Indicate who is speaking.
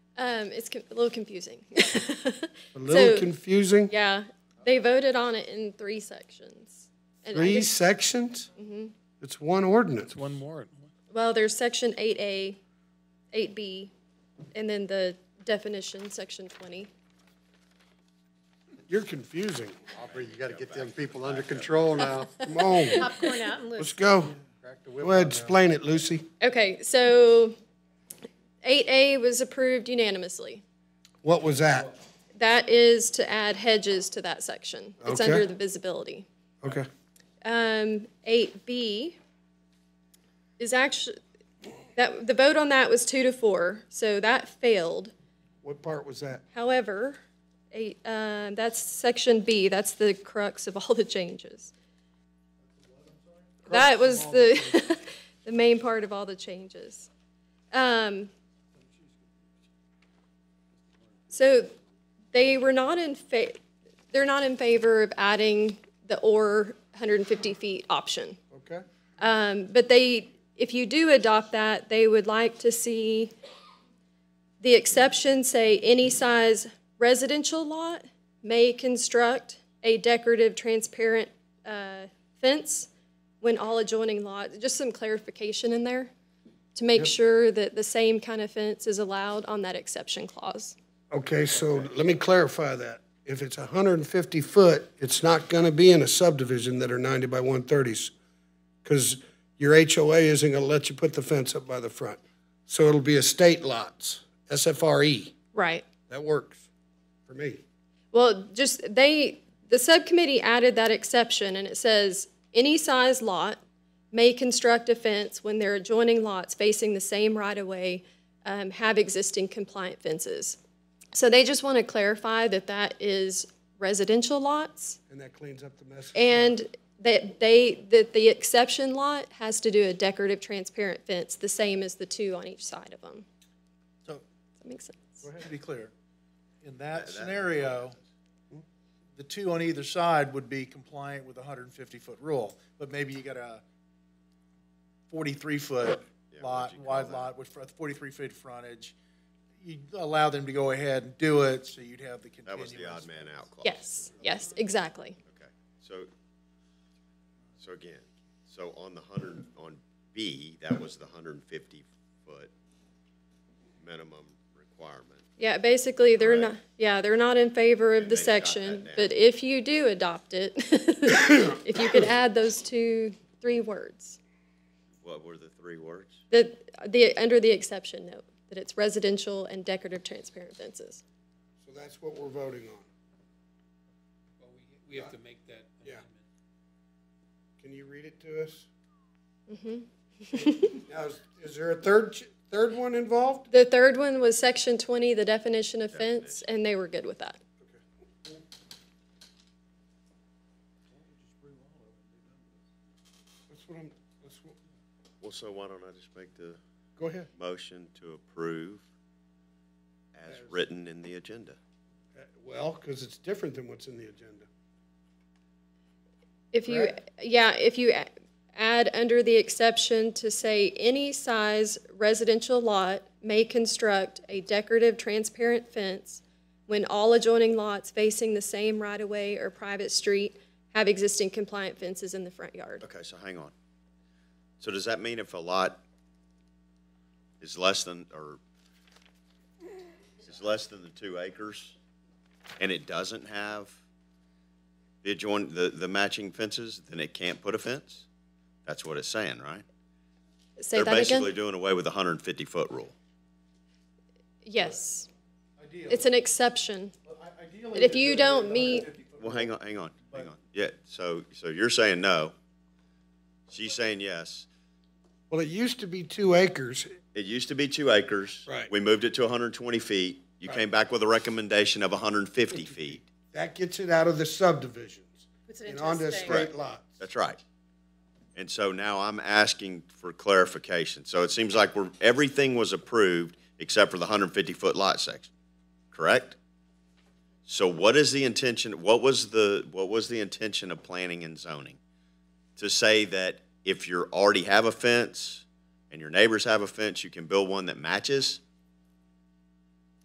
Speaker 1: Um, it's con- a little confusing.
Speaker 2: A little
Speaker 1: So-
Speaker 2: confusing.
Speaker 1: Yeah, they voted on it in three sections. And I
Speaker 2: Three
Speaker 1: guess-
Speaker 2: sections? It's one ordinance.
Speaker 3: One more.
Speaker 1: Well, there's section eight A, eight B, and then the definition, section twenty.
Speaker 2: You're confusing.
Speaker 4: Aubrey, you gotta get them people under control now.
Speaker 2: Come on,
Speaker 5: Popcorn out and loose.
Speaker 2: let's go. Go ahead, explain it, Lucy.
Speaker 1: Okay, so eight A was approved unanimously.
Speaker 2: What was that?
Speaker 1: That is to add hedges to that section. It's
Speaker 2: Okay.
Speaker 1: under the visibility.
Speaker 2: Okay.
Speaker 1: Um, eight B is actually, that, the vote on that was two to four, so that failed.
Speaker 2: What part was that?
Speaker 1: However, eight, uh, that's section B, that's the crux of all the changes. That was the, the main part of all the changes. Um, so they were not in fa, they're not in favor of adding the or hundred and fifty feet option.
Speaker 2: Okay.
Speaker 1: Um, but they, if you do adopt that, they would like to see the exception say any size residential lot may construct a decorative transparent uh, fence when all adjoining lots, just some clarification in there to make sure that the same kind of fence is allowed on that exception clause.
Speaker 2: Okay, so let me clarify that. If it's hundred and fifty foot, it's not gonna be in a subdivision that are ninety by one thirties. Cause your HOA isn't gonna let you put the fence up by the front. So it'll be estate lots, SFRE.
Speaker 1: Right.
Speaker 2: E. That works for me.
Speaker 1: Well, just, they, the subcommittee added that exception, and it says, any size lot may construct a fence when their adjoining lots facing the same right-of-way um, have existing compliant fences. So they just want to clarify that that is residential lots,
Speaker 2: And that cleans up the mess.
Speaker 1: and that they, that the exception lot has to do a decorative transparent fence, the same as the two on each side of them.
Speaker 6: So,
Speaker 1: Does that make sense?
Speaker 6: to be clear, in that scenario,
Speaker 4: Hmm?
Speaker 6: the two on either side would be compliant with the hundred and fifty-foot rule, but maybe you got a forty-three-foot lot, wide lot with forty-three feet frontage. You'd allow them to go ahead and do it, so you'd have the
Speaker 4: That was the odd
Speaker 6: continuous.
Speaker 4: man out clause.
Speaker 1: Yes, yes, exactly.
Speaker 4: Okay, so, so again, so on the hundred, on B, that was the hundred and fifty foot minimum requirement.
Speaker 1: Yeah, basically, they're
Speaker 4: Correct.
Speaker 1: not, yeah, they're not in favor of the
Speaker 4: they shot that
Speaker 1: section,
Speaker 4: down.
Speaker 1: but if you do adopt it, if you could add those two, three words,
Speaker 4: What were the three words?
Speaker 1: that, the, under the exception note, that it's residential and decorative transparent fences.
Speaker 2: So that's what we're voting on.
Speaker 7: Well, we, we have to make that
Speaker 2: Yeah.
Speaker 7: amendment.
Speaker 2: Can you read it to us? Now, is- is there a third, ch- third one involved?
Speaker 1: The third one was section twenty, the definition of fence, and they were good with that.
Speaker 2: That's what I'm, that's what,
Speaker 4: Well, so why don't I just make the
Speaker 2: go ahead.
Speaker 4: motion to approve as written in the agenda?
Speaker 2: Uh, Well, because it's different than what's in the agenda.
Speaker 1: If you, yeah, if you a- add under the exception to say any size residential lot may construct a decorative transparent fence when all adjoining lots facing the same right-of-way or private street have existing compliant fences in the front yard.
Speaker 4: Okay, so hang on. So does that mean if a lot is less than, or is less than the two acres, and it doesn't have the adjoin, the, the matching fences, then it can't put a fence? That's what it's saying, right?
Speaker 1: Say
Speaker 4: They're
Speaker 1: that
Speaker 4: basically
Speaker 1: again?
Speaker 4: doing away with the hundred and fifty foot rule.
Speaker 1: Yes,
Speaker 6: Ideally,
Speaker 1: it's an exception.
Speaker 6: ideally,
Speaker 1: If you don't meet,
Speaker 4: Well, hang on, hang on, hang on. Yeah, so, so you're saying no. She's saying yes.
Speaker 2: Well, it used to be two acres.
Speaker 4: It used to be two acres.
Speaker 2: Right.
Speaker 4: We moved it to hundred and twenty feet. You came back with a recommendation of hundred and fifty feet.
Speaker 2: That gets it out of the subdivisions
Speaker 5: Puts it
Speaker 2: and
Speaker 5: into a
Speaker 2: onto
Speaker 5: state.
Speaker 2: state lots.
Speaker 4: That's right. And so now I'm asking for clarification. So it seems like we're, everything was approved except for the hundred and fifty-foot lot section, correct? So what is the intention, what was the, what was the intention of planning and zoning? To say that if you already have a fence and your neighbors have a fence, you can build one that matches?